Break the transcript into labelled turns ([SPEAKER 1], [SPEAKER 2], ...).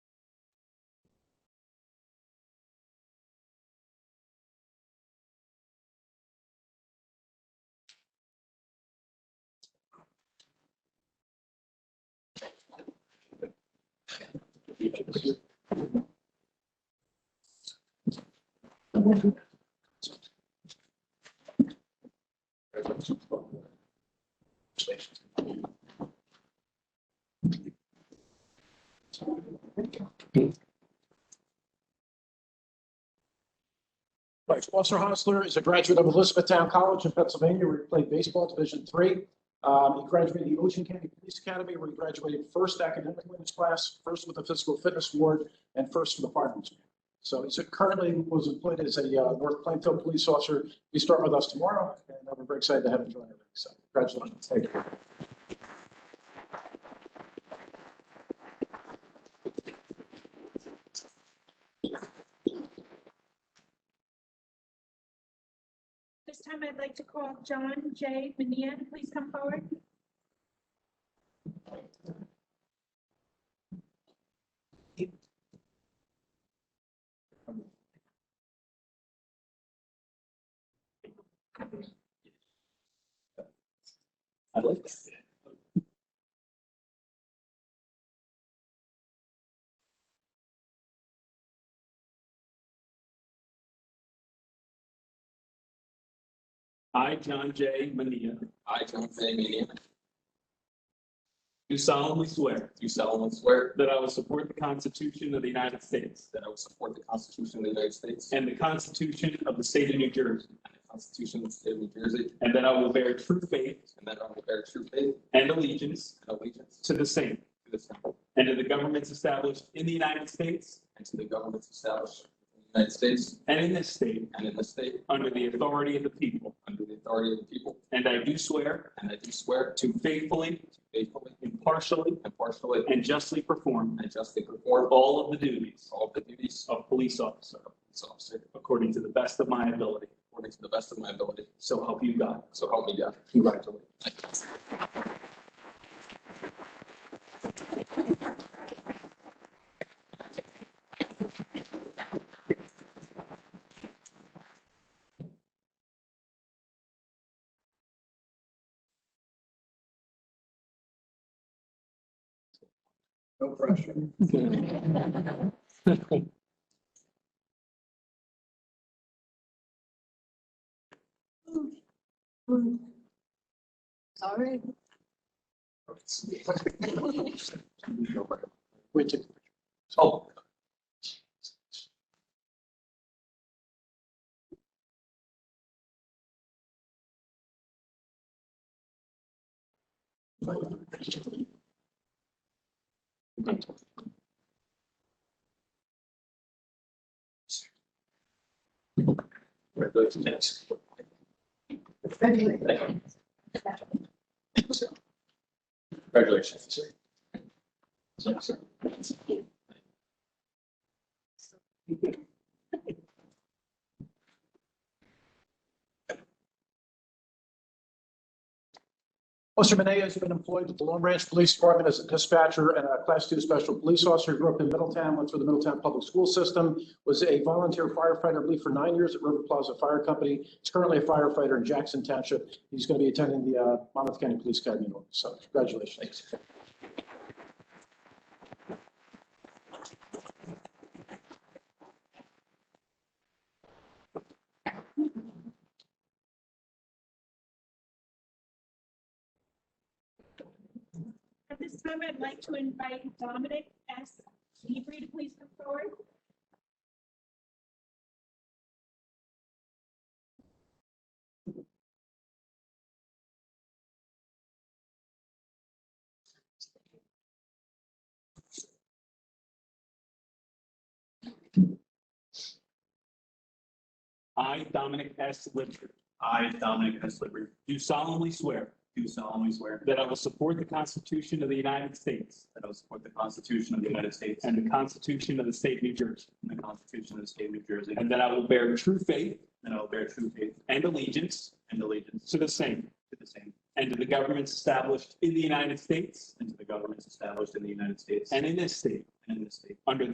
[SPEAKER 1] pages. Mike Foster Hostler is a graduate of Elizabethtown College in Pennsylvania, where he played baseball Division Three. Um, he graduated the Ocean County Police Academy, where he graduated first academically in his class, first with the physical fitness award, and first for the fireman's. award. So he's currently was employed as a uh, North Plainfield police officer. You start with us tomorrow, and uh, we're very excited to have him join us. So congratulations. Thank you.
[SPEAKER 2] This time I'd like to call John J. Mania. Please come forward.
[SPEAKER 1] I like that.
[SPEAKER 3] I, John J. Mania,
[SPEAKER 4] I, John J. Mannion,
[SPEAKER 3] do solemnly swear
[SPEAKER 4] do solemnly swear
[SPEAKER 3] that I will support the Constitution of the United States
[SPEAKER 4] that I will support the Constitution of the United States and
[SPEAKER 3] and the Constitution of the State of New Jersey,
[SPEAKER 4] the Constitution of the State of New Jersey,
[SPEAKER 3] and that I will bear true faith
[SPEAKER 4] and that I will bear true faith
[SPEAKER 3] and allegiance
[SPEAKER 4] and allegiance
[SPEAKER 3] to the same
[SPEAKER 4] to the same
[SPEAKER 3] and to the governments established in the United States
[SPEAKER 4] and to the governments established in the United States
[SPEAKER 3] and in this state
[SPEAKER 4] and in the state
[SPEAKER 3] under the authority of the people.
[SPEAKER 4] under the authority of the people.
[SPEAKER 3] And I do swear
[SPEAKER 4] And I do swear
[SPEAKER 3] to faithfully,
[SPEAKER 4] to faithfully,
[SPEAKER 3] impartially,
[SPEAKER 4] impartially,
[SPEAKER 3] and justly perform
[SPEAKER 4] and justly perform
[SPEAKER 3] all of the duties
[SPEAKER 4] all the duties
[SPEAKER 3] of police officer
[SPEAKER 4] of police officer
[SPEAKER 3] according to the best of my ability.
[SPEAKER 4] according to the best of my ability.
[SPEAKER 3] So help you God.
[SPEAKER 4] So help me God. Congratulations.
[SPEAKER 1] No pressure.
[SPEAKER 5] Sorry.
[SPEAKER 1] Wait, take-
[SPEAKER 4] Oh,
[SPEAKER 1] Congratulations.
[SPEAKER 4] congratulations.
[SPEAKER 1] Officer Manea has been employed with the Long Branch Police Department as a dispatcher and a Class II Special Police Officer. Grew up in Middletown, went through the Middletown Public School System, was a volunteer firefighter, I believe, for nine years at River Plaza Fire Company. He's currently a firefighter in Jackson Township. He's going to be attending the uh, Monmouth County Police Academy. in August. So congratulations.
[SPEAKER 2] At this time, I'd like to invite Dominic S. Seabury to please come forward.
[SPEAKER 3] I, Dominic S. Litchfield,
[SPEAKER 6] I, Dominic S. Liberty,
[SPEAKER 3] do solemnly swear
[SPEAKER 6] do solemnly swear
[SPEAKER 3] that I will support the Constitution of the United States
[SPEAKER 6] that I will support the Constitution of the United States and
[SPEAKER 3] and the Constitution of the State of New Jersey,
[SPEAKER 6] the Constitution of the State of New Jersey,
[SPEAKER 3] and that I will bear true faith
[SPEAKER 6] and I will bear true faith
[SPEAKER 3] and allegiance
[SPEAKER 6] and allegiance
[SPEAKER 3] to the same
[SPEAKER 6] to the same
[SPEAKER 3] and to the governments established in the United States
[SPEAKER 6] and to the governments established in the United States and
[SPEAKER 3] and in this state
[SPEAKER 6] in the state
[SPEAKER 3] under the